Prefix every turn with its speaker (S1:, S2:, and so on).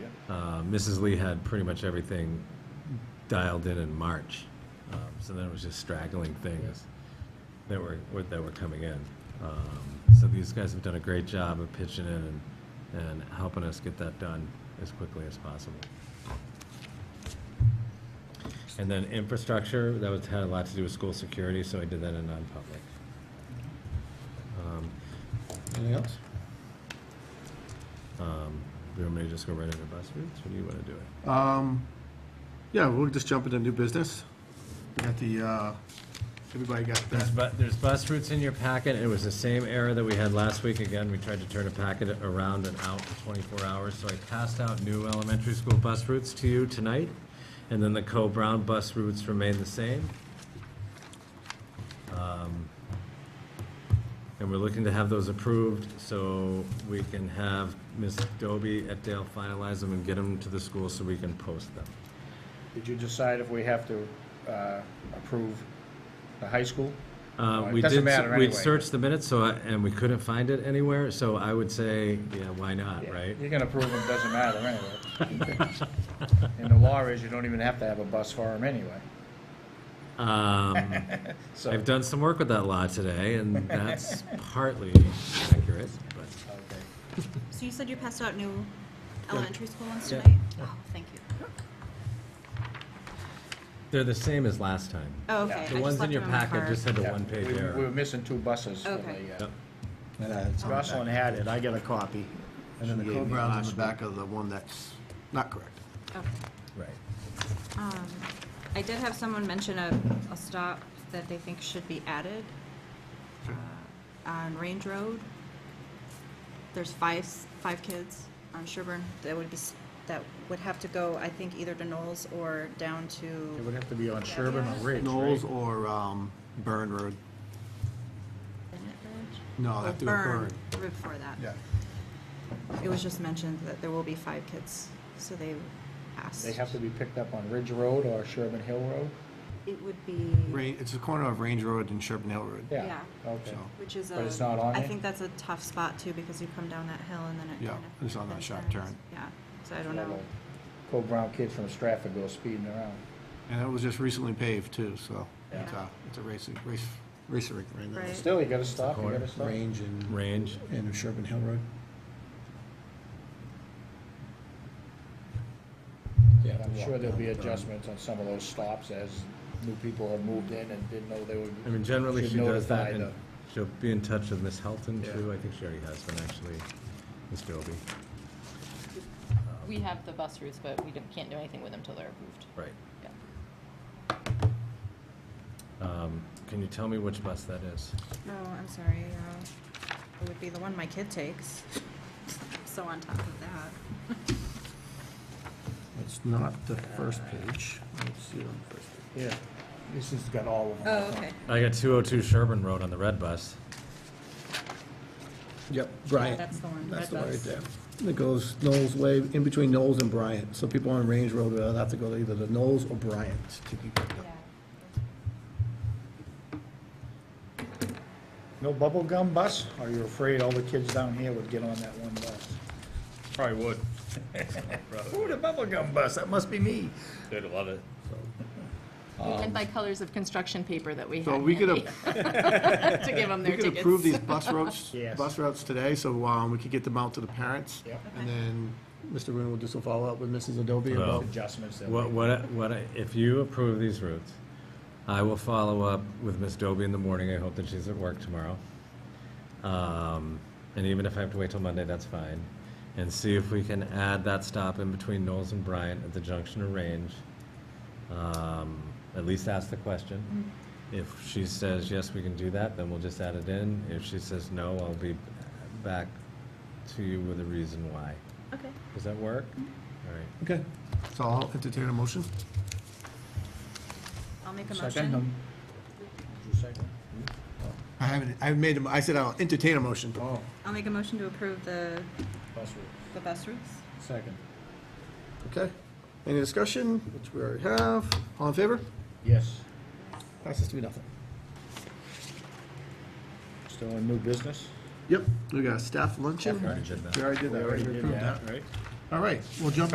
S1: uh, Mrs. Lee had pretty much everything dialed in in March. Um, So then it was just straggling things that were, were- that were coming in. Um, So these guys have done a great job of pitching in and, and helping us get that done as quickly as possible. And then infrastructure, that was, had a lot to do with school security, so I did that in non-public. Um,
S2: Anything else?
S1: um, Do you want me to just go right into bus routes, or do you want to do it?
S2: Um, yeah, we'll just jump into new business. We got the, uh, everybody got
S1: There's
S2: that.
S1: bu, there's bus routes in your packet, it was the same error that we had last week, again, we tried to turn a packet around and out in twenty-four hours, so I passed out new elementary school bus routes to you tonight, and then the Co-Brown bus routes remain the same. Um, And we're looking to have those approved, so we can have Ms. Doby at Dale finalize them and get them to the school so we can post them.
S3: Did you decide if we have to uh, approve the high school?
S1: Uh,
S3: Uh, it
S1: We
S3: doesn't
S1: did,
S3: matter
S1: we
S3: anyway.
S1: searched the minutes, so, I- and we couldn't find it anywhere, so I would say, yeah, why not, right?
S3: You can approve them, doesn't matter anyway. And the law is you don't even have to have a bus for them anyway.
S1: Um,
S3: So,
S1: I've
S3: okay.
S1: done some work with that law today, and that's partly accurate, but,
S4: So you said you passed out new elementary school ones
S1: Yeah.
S4: tonight? Oh, thank you.
S1: they're the same as last time.
S4: Oh, okay.
S1: The
S4: I
S1: ones
S4: just
S1: in
S4: left
S1: your
S4: them my
S1: packet
S4: car.
S1: just had the
S3: Yeah,
S1: one-page
S3: we- We were
S1: error.
S3: missing two buses. when
S4: Okay.
S3: they, uh,
S1: Yep.
S2: Yeah, it's on the
S3: Jocelyn
S2: back.
S3: had it, I got a copy.
S2: And then the
S3: She gave me
S2: co-brown's
S3: last
S2: on the back of the one that's not correct.
S4: Okay.
S1: Right.
S4: Um, I did have someone mention a, a stop that they think should be added uh, on Range Road. There's five, s- five kids on Sherburne that would be, s- that would have to go, I think, either to Knowles or down
S3: It
S4: to,
S3: would have to be on Sherburne or Ridge,
S2: Knowles
S3: right?
S2: or, um, Burn Road?
S4: Bennett Ridge?
S2: No,
S4: Or
S2: that's the Burn.
S4: Burn, right before that.
S2: Yeah.
S4: It was just mentioned that there will be five kids, so they asked.
S3: They have to be picked up on Ridge Road or Sherburne Hill Road?
S4: It would be,
S2: Rain, it's the corner of Range Road and Sherburne Hill Road.
S3: Yeah,
S4: Yeah.
S3: okay.
S2: So-
S4: which is a.
S3: But it's not on
S4: I
S3: there?
S4: think that's a tough spot too, because you come down that hill and then it
S2: Yeah,
S4: kind of.
S2: it's on that
S4: then
S2: sharp
S4: turns.
S2: turn.
S4: Yeah, so I don't know.
S3: Co-Brown kid from Stratford goes speeding around.
S2: And it was just recently paved too, so it's
S4: Yeah.
S2: a, it's a racing, race, racer ring right now.
S4: Right.
S3: Still, you gotta stop, you gotta stop.
S5: Range and,
S1: Range,
S5: and Sherburne Hill Road? Yeah,
S3: And I'm sure there'll be adjustments on some of those stops as new people have moved in and didn't know they would.
S1: I mean, generally
S3: Should
S1: she does that,
S3: notify
S1: and
S3: the-
S1: she'll be in touch with Ms. Helton
S3: Yeah.
S1: too, I think she already has been actually, Ms. Dobie.
S6: We have the bus routes, but we don't- can't do anything with them until they're approved.
S1: Right.
S6: Yeah.
S1: Um, Can you tell me which bus that is?
S4: No, I'm sorry, uh, it would be the one my kid takes. So on top of that.
S2: It's not the first page. Let's see on the first page.
S3: Yeah, this has got all of them.
S4: Oh, okay.
S1: I got 202 Sherburne Road on the red bus.
S5: Yep, Bryant.
S4: That's the one,
S5: That's
S4: red
S5: the one right
S4: bus.
S5: there. It goes Knowles Way, in between Knowles and Bryant. So people on Range Road will have to go to either the Knowles or Bryant to be picked up.
S3: No bubble gum bus? Are you afraid all the kids down here would get on that one bus?
S7: Probably would.
S3: Ooh, the bubble gum bus, that must be me.
S7: They'd love it.
S6: And by colors of construction paper that we had.
S2: Um, So we could,
S6: handy
S2: a-
S6: To give them
S2: we
S6: their
S2: could
S6: tickets.
S2: approve these bus routes,
S3: Yes.
S2: bus routes today, so, um, we could get them out to the parents.
S3: Yep.
S2: And then Mr. Rooney will do some follow-up with Mrs. Adobe
S1: Hello.
S2: about,
S3: Adjustments that
S1: What,
S3: we.
S1: what, I- what, I- if you approve these routes, I will follow up with Ms. Doby in the morning, I hope that she's at work tomorrow. Um, And even if I have to wait till Monday, that's fine. And see if we can add that stop in between Knowles and Bryant at the junction of Range. Um, At least ask the question. If she says, yes, we can do that, then we'll just add it in. If she says no, I'll be back to you with a reason why.
S4: Okay.
S1: Does that work? All right.
S5: Okay.
S2: so I'll entertain a motion.
S4: I'll make a
S3: Second um,
S4: motion.
S3: them. Did you second?
S2: I haven't, I made them, I said I'll entertain a motion.
S3: Oh,
S4: I'll make a motion to approve the,
S3: bus route,
S4: the bus routes.
S3: second.
S2: Okay. Any discussion, which we already have? All in favor?
S3: Yes,
S5: Passes three, nothing.
S3: still in new business?
S2: Yep. We got a staff luncheon.
S1: We already did that.
S2: We already did that.
S3: We already did
S2: approved
S3: that, right?
S2: All right, we'll jump